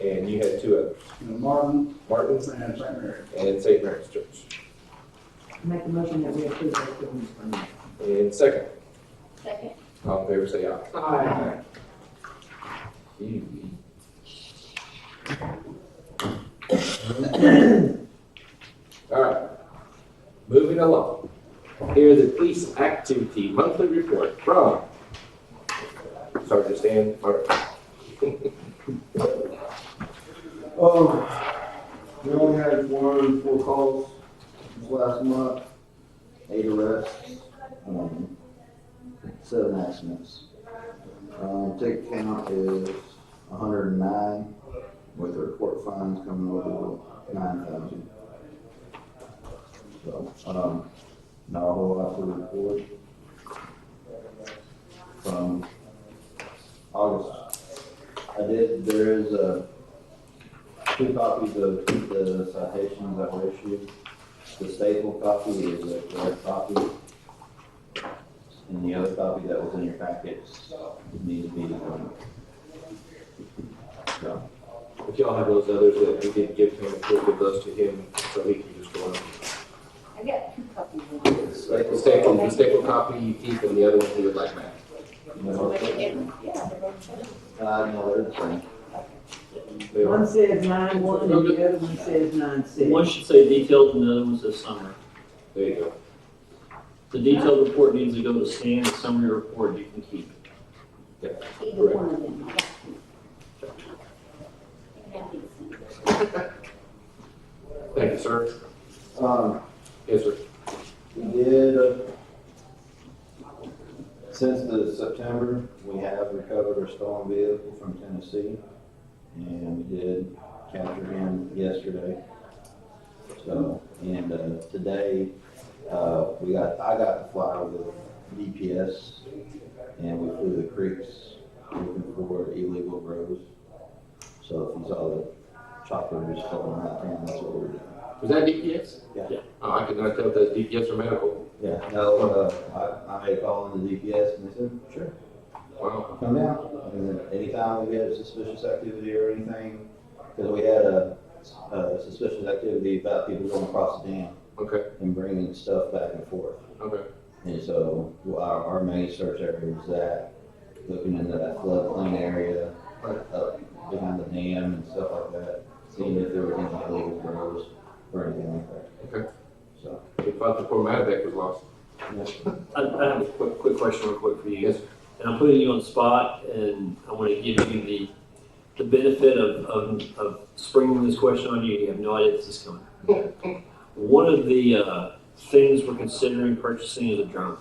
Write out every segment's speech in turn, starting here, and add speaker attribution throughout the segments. Speaker 1: and you had two others,
Speaker 2: and Martin
Speaker 1: Martin's
Speaker 2: and St. Mary.
Speaker 1: and St. Mary's Church.
Speaker 3: Make a motion that we approve those buildings permits.
Speaker 1: And second,
Speaker 4: Second.
Speaker 1: all in favor say aye.
Speaker 2: Aye.
Speaker 1: Easy. All right, moving along. Here's the police activity monthly report from Sergeant Stan Martin.
Speaker 5: Oh,
Speaker 2: Um, we only had one, four calls this last month,
Speaker 5: eight arrests, um, seven accidents. Um, ticket count is hundred and nine, with the report fines coming over nine thousand. So, um, not a whole lot to report. From August, I did, there is, uh, two copies of the citations that were issued. The staple copy is a correct copy. And the other copy that was in your packets needs to be done. So,
Speaker 1: If y'all have those others that we did give him, we'll give those to him so he can just go on.
Speaker 4: I got two copies of them.
Speaker 1: The staple, the staple copy you keep and the other one he would like back.
Speaker 5: you know,
Speaker 4: But they didn't- Yeah, they both said it.
Speaker 5: uh, no, they're the same.
Speaker 1: They are-
Speaker 3: One says nine one and the other one says nine six.
Speaker 6: One should say detailed and the other one says summary.
Speaker 1: There you go.
Speaker 6: The detailed report needs to go to Stan, the summary report you can keep.
Speaker 4: either one of them. I got two. And that is-
Speaker 1: Thank you, sir.
Speaker 5: Um,
Speaker 1: Yes, sir.
Speaker 5: We did, uh, since the September, we have recovered a stolen vehicle from Tennessee, and we did capture him yesterday. So, and, uh, today, uh, we got, I got to fly with DPS, and we flew the creeks looking for illegal grows. So if you saw the chopper just going around town, that's what we're doing.
Speaker 1: Was that DPS?
Speaker 5: Yeah.
Speaker 1: Oh, I could not tell if that's DPS or medical.
Speaker 5: Yeah, no, uh, I, I made a call into DPS and they said, sure,
Speaker 1: Wow.
Speaker 5: come down. And then anytime we had suspicious activity or anything, because we had a, a suspicious activity about people going across the dam
Speaker 1: Okay,
Speaker 5: and bringing stuff back and forth.
Speaker 1: okay.
Speaker 5: And so our, our main search area was that, looking into that floodplain area, up behind the dam and stuff like that, seeing if there were any illegal grows or anything like that.
Speaker 1: Okay.
Speaker 5: So,
Speaker 1: We thought the poor Madback was lost.
Speaker 6: I, I have a quick, quick question real quick for you.
Speaker 1: Yes, sir.
Speaker 6: And I'm putting you on the spot and I want to give you the, the benefit of, of, of springing this question on you. You have no idea this is coming. One of the, uh, things we're considering purchasing is a drone,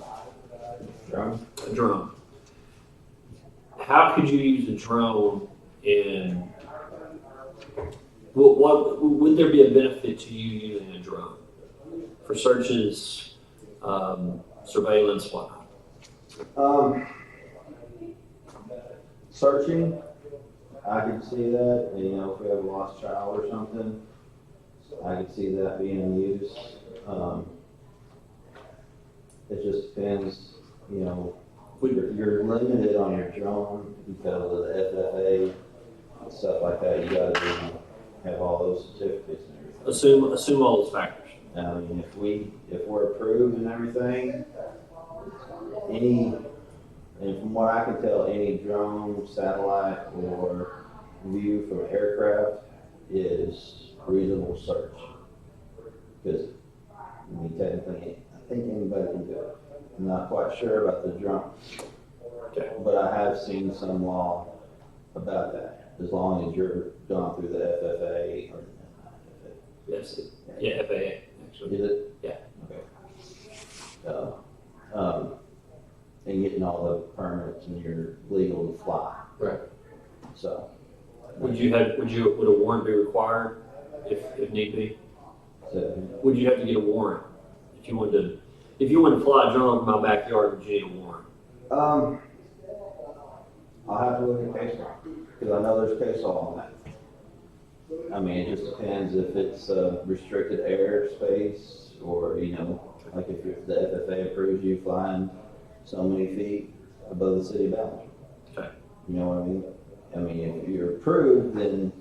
Speaker 5: Drum?
Speaker 6: a drone. How could you use a drone in, what, what, would there be a benefit to you using a drone? For searches, um, surveillance, whatnot?
Speaker 5: Um, searching, I could see that, you know, if we have a lost child or something, I could see that being used. Um, it just depends, you know, you're, you're limited on your drone because of the FFA, and stuff like that, you gotta be, have all those certificates and everything.
Speaker 6: Assume, assume all those factors.
Speaker 5: I mean, Um, if we, if we're approved and everything, any, and from what I can tell, any drone, satellite, or view from aircraft is reasonable search. Because, I mean, technically, I think anybody can do it. I'm not quite sure about the drone.
Speaker 6: Okay.
Speaker 5: But I have seen some law about that, as long as you're gone through the FFA or.
Speaker 6: Yes, yeah, FAA, actually.
Speaker 5: Is it?
Speaker 6: Yeah.
Speaker 5: Okay. So, um, and getting all the permits and you're legal to fly.
Speaker 1: Right.
Speaker 5: So.
Speaker 6: Would you have, would you, would a warrant be required if, if need be?
Speaker 5: So,
Speaker 6: Would you have to get a warrant? If you wanted to, if you wanted to fly a drone over my backyard, would you need a warrant?
Speaker 5: um, I'll have to look at case law, because I know there's case law on that. I mean, it just depends if it's, uh, restricted airspace or, you know, like if you're- the FFA approves you flying so many feet above the city boundary.
Speaker 6: Okay.
Speaker 5: You know what I mean? I mean, if you're approved, then